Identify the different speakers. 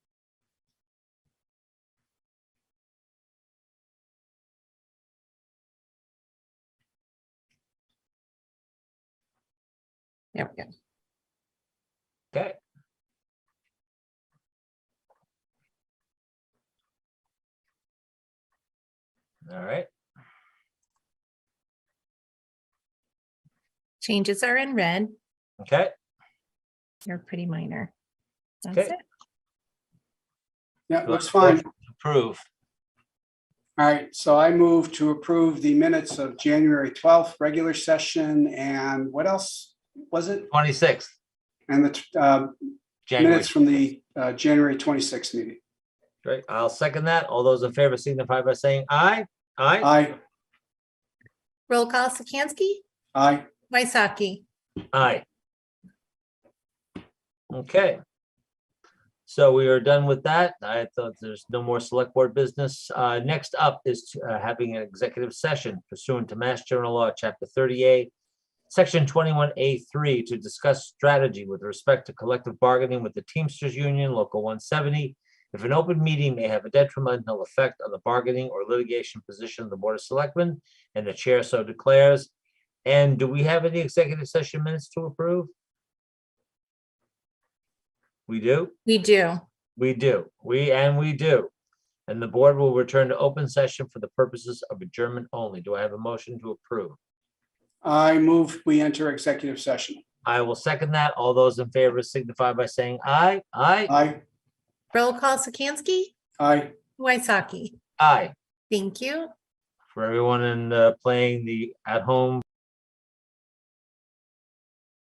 Speaker 1: There we go.
Speaker 2: Okay. All right,
Speaker 1: Changes are in red.
Speaker 2: okay,
Speaker 1: They're pretty minor. That's
Speaker 2: Okay.
Speaker 1: it.
Speaker 3: Yeah,
Speaker 2: Do I
Speaker 3: looks
Speaker 2: have a
Speaker 3: fine.
Speaker 2: motion? approve.
Speaker 3: All right, so I move to approve the minutes of January 12th, regular session, and what else was it?
Speaker 2: Twenty-sixth,
Speaker 3: And the uh,
Speaker 2: January.
Speaker 3: minutes from the uh, January 26th meeting.
Speaker 2: Great, I'll second that. All those in favor signify by saying aye. Aye,
Speaker 3: Aye,
Speaker 1: Roll call Sikansky,
Speaker 3: aye.
Speaker 1: Waisaki,
Speaker 2: aye. Okay. So we are done with that. I thought there's no more select board business. Uh, next up is uh, having an executive session pursuant to Mass General Law, Chapter thirty-eight, Section twenty-one A three to discuss strategy with respect to collective bargaining with the Teamsters Union, Local one seventy. If an open meeting may have a detrimental effect on the bargaining or litigation position of the Board of Selectmen and the chair so declares. And do we have any executive session minutes to approve? We do?
Speaker 1: we do.
Speaker 2: We do, we, and we do. And the board will return to open session for the purposes of adjournment only. Do I have a motion to approve?
Speaker 3: I move we enter executive session.
Speaker 2: I will second that. All those in favor signify by saying aye, aye,
Speaker 3: Aye,
Speaker 1: Roll call Sikansky,
Speaker 3: aye.
Speaker 1: Waisaki.
Speaker 2: aye.
Speaker 1: Thank you.
Speaker 2: For everyone in, uh, playing the at-home